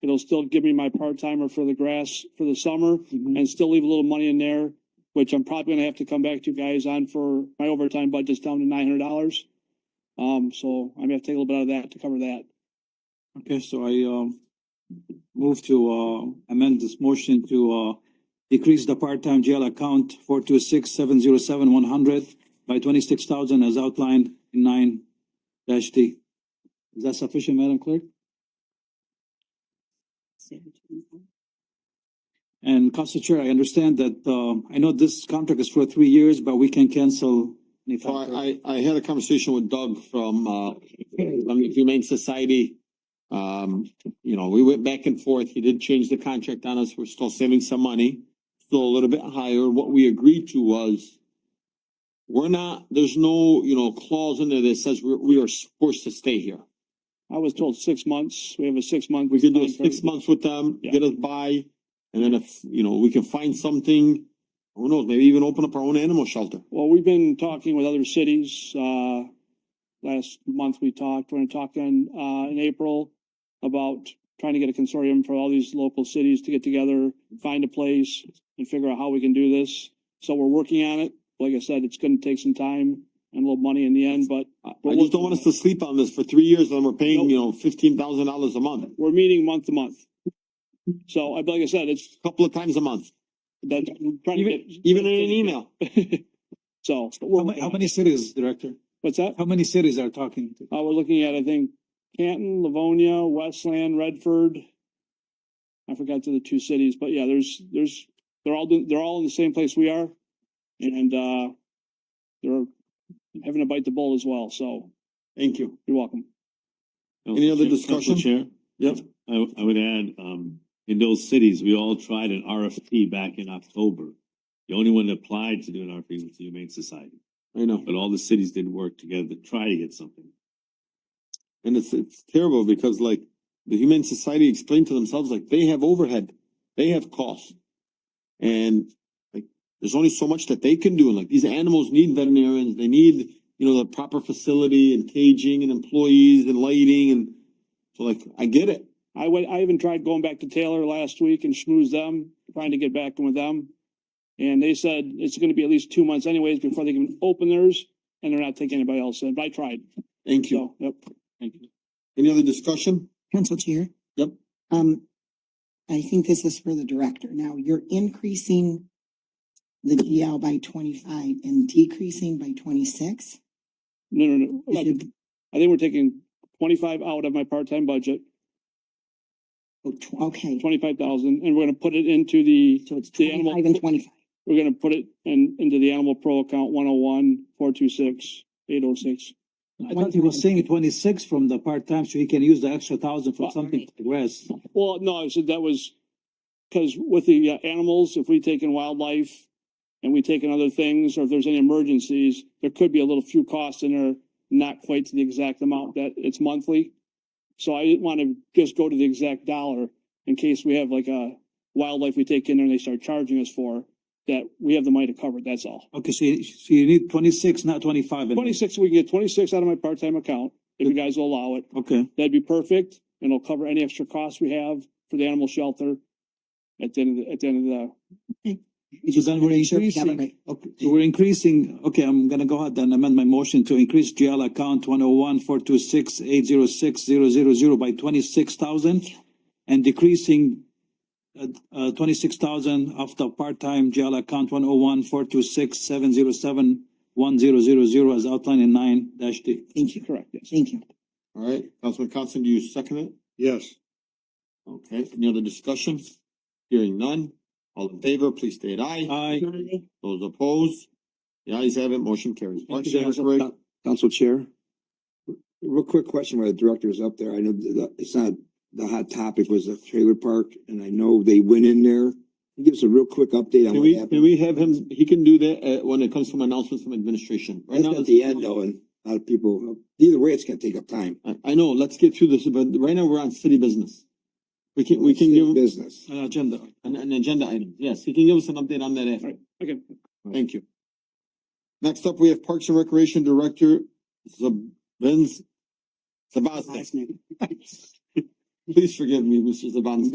they'll still give me my part timer for the grass for the summer and still leave a little money in there, which I'm probably gonna have to come back to you guys on for my overtime budget's down to nine hundred dollars. Um, so I'm gonna have to take a little bit out of that to cover that. Okay, so I um move to uh amend this motion to uh decrease the part-time jail account four two six seven zero seven one hundred by twenty-six thousand as outlined in nine dash D. Is that sufficient, Madam Clerk? And Council Chair, I understand that um I know this contract is for three years, but we can cancel. any So factor. I, I, I had a conversation with Doug from, uh, from the Humane Society. Um, you know, we went back and forth. He did change the contract on us. We're still saving some money. Still a little bit higher. What we agreed to was we're not, there's no, you know, clause in there that says we're, we are forced to stay here. I was told six months. We have a six month. We could do six months with them, get us by, and then if, you know, we can find something, who knows, maybe even open up our own animal shelter. Well, we've been talking with other cities, uh, last month we talked, we're talking, uh, in April about trying to get a consortium for all these local cities to get together, find a place and figure out how we can do this. So we're working on it. Like I said, it's gonna take some time and a little money in the end, but I I just don't want us to sleep on this for three years and we're paying, you know, fifteen thousand dollars a month, we're meeting month to month. So I, like I said, it's, a couple of times a month, that's, I'm trying to even, get. even in an email. So, How many, how many cities, Director? what's that? How many cities are talking to? Uh, we're looking at, I think, Canton, Livonia, Westland, Redford. I forgot to the two cities, but yeah, there's, there's, they're all, do- they're all in the same place we are. And, uh, they're having a bite the bull as well, so Thank you. you're welcome. Any other Council discussion? Chair? Yep. I, w- I would add, um, in those cities, we all tried an RFP back in October. The only one that applied to do an RFP was the Humane Society, I know, but all the cities did work together to try to get something. and it's, it's terrible because like the Humane Society explained to themselves, like they have overhead, they have costs. And like, there's only so much that they can do, and like these animals need veterinarians, they need, you know, the proper facility and caging and employees and lighting and. So like, I get it, I went, I even tried going back to Taylor last week and schmooze them, trying to get back in with them. And they said it's gonna be at least two months anyways before they can open theirs, and they're not taking anybody else in, but I tried, thank you. so, yep. Any other discussion? Council Chair? Yep. Um, I think this is for the director. Now, you're increasing the GL by twenty-five and decreasing by twenty-six? No, no, Is no, it- I think we're taking twenty-five out of my part-time budget, oh, tw- Okay, twenty-five thousand, and we're gonna put it into the, so it's the animal- twenty-five and twenty-five. we're gonna put it in, into the animal pro account one oh one, four two six, eight oh six. I thought he was saying twenty-six from the part-time, so he can use the extra thousand for something to progress. Well, no, I said that was, cause with the uh, animals, if we take in wildlife and we take in other things, or if there's any emergencies, there could be a little few costs in there, not quite to the exact amount that it's monthly. So I didn't wanna just go to the exact dollar in case we have like a wildlife we take in there and they start charging us for, that we have the money to cover, it, that's all. Okay, so you, so you need twenty-six, not twenty-five. in there. Twenty-six, we can get twenty-six out of my part-time account, if you guys will allow it. Okay, That'd be perfect, and it'll cover any extra costs we have for the animal shelter at the end of the, at the end of so then we're Make sure we have increasing, it right. okay, so we're increasing, okay, I'm gonna go ahead and amend my motion to increase GL account one oh one four two six eight zero six zero zero zero by twenty-six thousand and decreasing uh, uh, twenty-six thousand of the part-time GL account one oh one four two six seven zero seven one zero zero zero as outlined in nine dash D. Thank you, the, correct, yes. thank you. All right, Councilman Constant, do you second it? Yes. Okay, any other discussion? Hearing none, all in favor, please state aye. Aye. Those opposed? The ayes have it, motion carries. Thank you, Lunch Council. hour break. Council Chair. Real quick question while the director is up there. I know that that- it's not, the hot topic was the trailer park and I know they went in there. Can you Give us a real quick update Can on what we, can happened. we have him, he can do that, uh, when it comes from announcements from administration. Right That's now, at the end though, and a lot of people, either way, it's gonna take up time. I, I know, let's get through this, but right now we're on city business. We can, we can give him Business. An agenda. an, an agenda item. Yes, he can give us an update on that after. Right. Okay, Thank you. Next up, we have Parks and Recreation Director Zab- Vince Sabaznik. Please forgive me, Mr. Zabanski.